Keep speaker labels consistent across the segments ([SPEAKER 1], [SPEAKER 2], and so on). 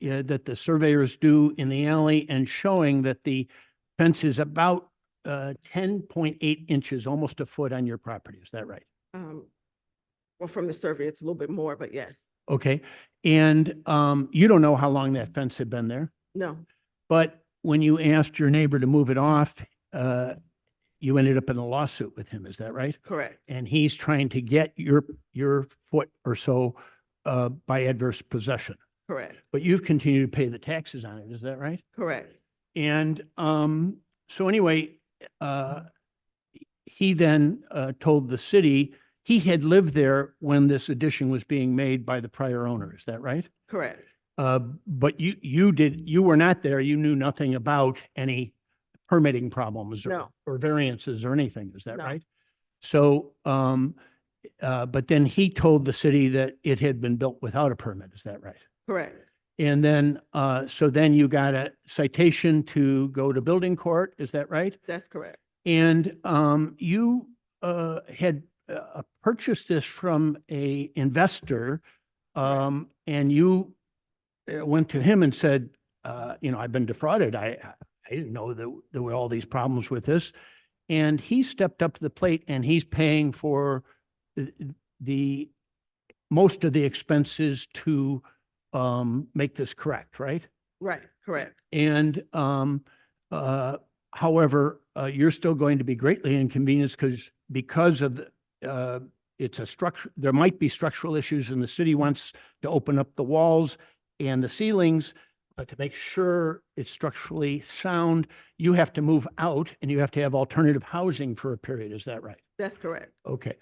[SPEAKER 1] yeah, that the surveyors do in the alley and showing that the fence is about uh, ten point eight inches, almost a foot on your property. Is that right?
[SPEAKER 2] Um, well, from the survey, it's a little bit more, but yes,
[SPEAKER 1] Okay. And um, you don't know how long that fence had been there,
[SPEAKER 2] no,
[SPEAKER 1] but when you asked your neighbor to move it off, uh, you ended up in a lawsuit with him. Is that right?
[SPEAKER 2] correct,
[SPEAKER 1] and he's trying to get your, your foot or so uh, by adverse possession.
[SPEAKER 2] correct,
[SPEAKER 1] But you've continued to pay the taxes on it, is that right?
[SPEAKER 2] correct.
[SPEAKER 1] And um, so anyway, uh, he then uh, told the city, he had lived there when this addition was being made by the prior owner, is that right?
[SPEAKER 2] Correct,
[SPEAKER 1] Uh, But you, you did, you were not there, you knew nothing about any permitting problems or
[SPEAKER 2] no,
[SPEAKER 1] or variances or anything, is that
[SPEAKER 2] No.
[SPEAKER 1] right? So, um, uh, but then he told the city that it had been built without a permit, is that right?
[SPEAKER 2] correct,
[SPEAKER 1] And then, uh, so then you got a citation to go to building court, is that right?
[SPEAKER 2] that's correct,
[SPEAKER 1] And, um, you, uh, had, uh, purchased this from a investor, um, and you uh, went to him and said, uh, you know, I've been defrauded. I, I didn't know that there were all these problems with this. And he stepped up to the plate and he's paying for the, the, most of the expenses to, um, make this correct, right?
[SPEAKER 2] right, correct,
[SPEAKER 1] And um, uh, however, uh, you're still going to be greatly inconvenienced because, because of the, uh, it's a structure, there might be structural issues and the city wants to open up the walls and the ceilings. But to make sure it's structurally sound, you have to move out and you have to have alternative housing for a period. Is that right?
[SPEAKER 2] that's correct,
[SPEAKER 1] Okay.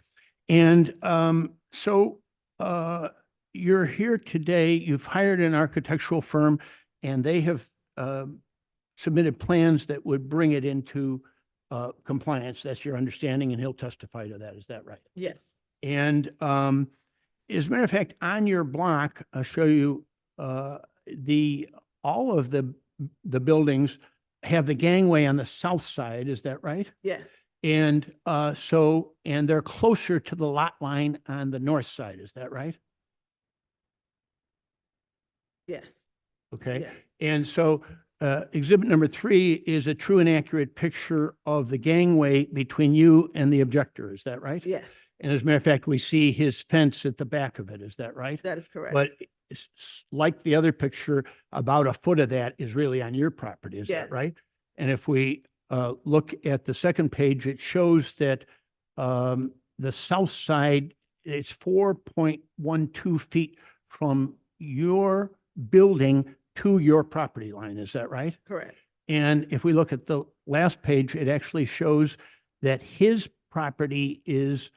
[SPEAKER 1] And um, so uh, you're here today, you've hired an architectural firm, and they have um, submitted plans that would bring it into uh, compliance. That's your understanding, and he'll testify to that. Is that right?
[SPEAKER 2] yes,
[SPEAKER 1] And um, as a matter of fact, on your block, I'll show you uh, the, all of the, the buildings have the gangway on the south side. Is that right?
[SPEAKER 2] yes,
[SPEAKER 1] And uh, so, and they're closer to the lot line on the north side, is that right?
[SPEAKER 2] yes,
[SPEAKER 1] Okay.
[SPEAKER 2] yes,
[SPEAKER 1] And so uh, exhibit number three is a true and accurate picture of the gangway between you and the objector, is that right?
[SPEAKER 2] yes,
[SPEAKER 1] And as a matter of fact, we see his fence at the back of it, is that right?
[SPEAKER 2] that is correct,
[SPEAKER 1] But it's s- like the other picture, about a foot of that is really on your property, is that
[SPEAKER 2] Yes.
[SPEAKER 1] right? And if we uh, look at the second page, it shows that um, the south side, it's four point one two feet from your building to your property line, is that right?
[SPEAKER 2] correct,
[SPEAKER 1] And if we look at the last page, it actually shows that his property is,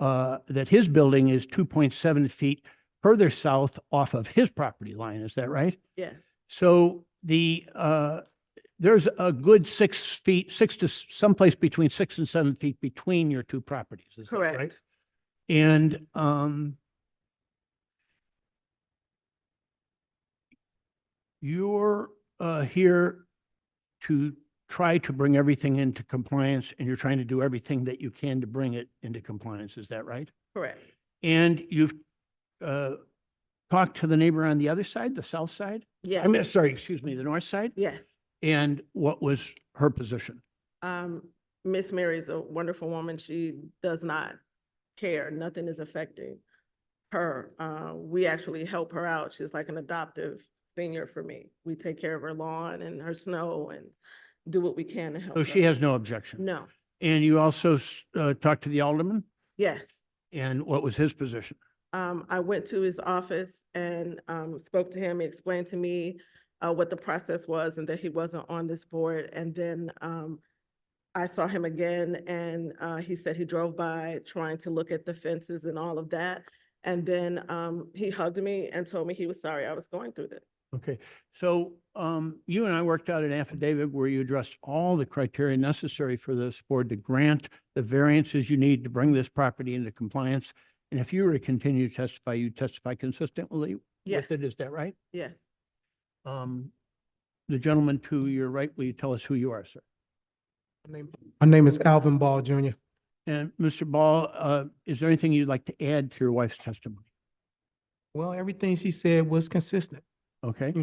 [SPEAKER 1] uh, that his building is two point seven feet further south off of his property line. Is that right?
[SPEAKER 2] yes,
[SPEAKER 1] So the, uh, there's a good six feet, six to s- someplace between six and seven feet between your two properties. Is that right?
[SPEAKER 2] correct,
[SPEAKER 1] And, um, you're, uh, here to try to bring everything into compliance and you're trying to do everything that you can to bring it into compliance. Is that right?
[SPEAKER 2] correct,
[SPEAKER 1] And you've, uh, talked to the neighbor on the other side, the south side? I
[SPEAKER 2] yes,
[SPEAKER 1] mean, sorry, excuse me, the north side?
[SPEAKER 2] yes.
[SPEAKER 1] And what was her position?
[SPEAKER 2] Um, Miss Mary is a wonderful woman. She does not care. Nothing is affecting her. Uh, we actually help her out. She's like an adoptive senior for me. We take care of her lawn and her snow and do what we can to help
[SPEAKER 1] So
[SPEAKER 2] her.
[SPEAKER 1] she has no objection?
[SPEAKER 2] No,
[SPEAKER 1] And you also, s- uh, talked to the alderman?
[SPEAKER 2] yes.
[SPEAKER 1] And what was his position?
[SPEAKER 2] Um, I went to his office and, um, spoke to him, He explained to me, uh, what the process was and that he wasn't on this board. And then, um, I saw him again and, uh, he said he drove by trying to look at the fences and all of that. And then, um, he hugged me and told me he was sorry I was going through this.
[SPEAKER 1] Okay, so um, you and I worked out an affidavit where you addressed all the criteria necessary for this board to grant the variances you need to bring this property into compliance. And if you were to continue to testify, you testify consistently
[SPEAKER 2] Yes,
[SPEAKER 1] with it, is that right?
[SPEAKER 2] yes.
[SPEAKER 1] Um, The gentleman to your right, will you tell us who you are, sir?
[SPEAKER 3] My name is Alvin Ball Jr.
[SPEAKER 1] And Mr. Ball, uh, is there anything you'd like to add to your wife's testimony?
[SPEAKER 3] Well, everything she said was consistent.
[SPEAKER 1] Okay?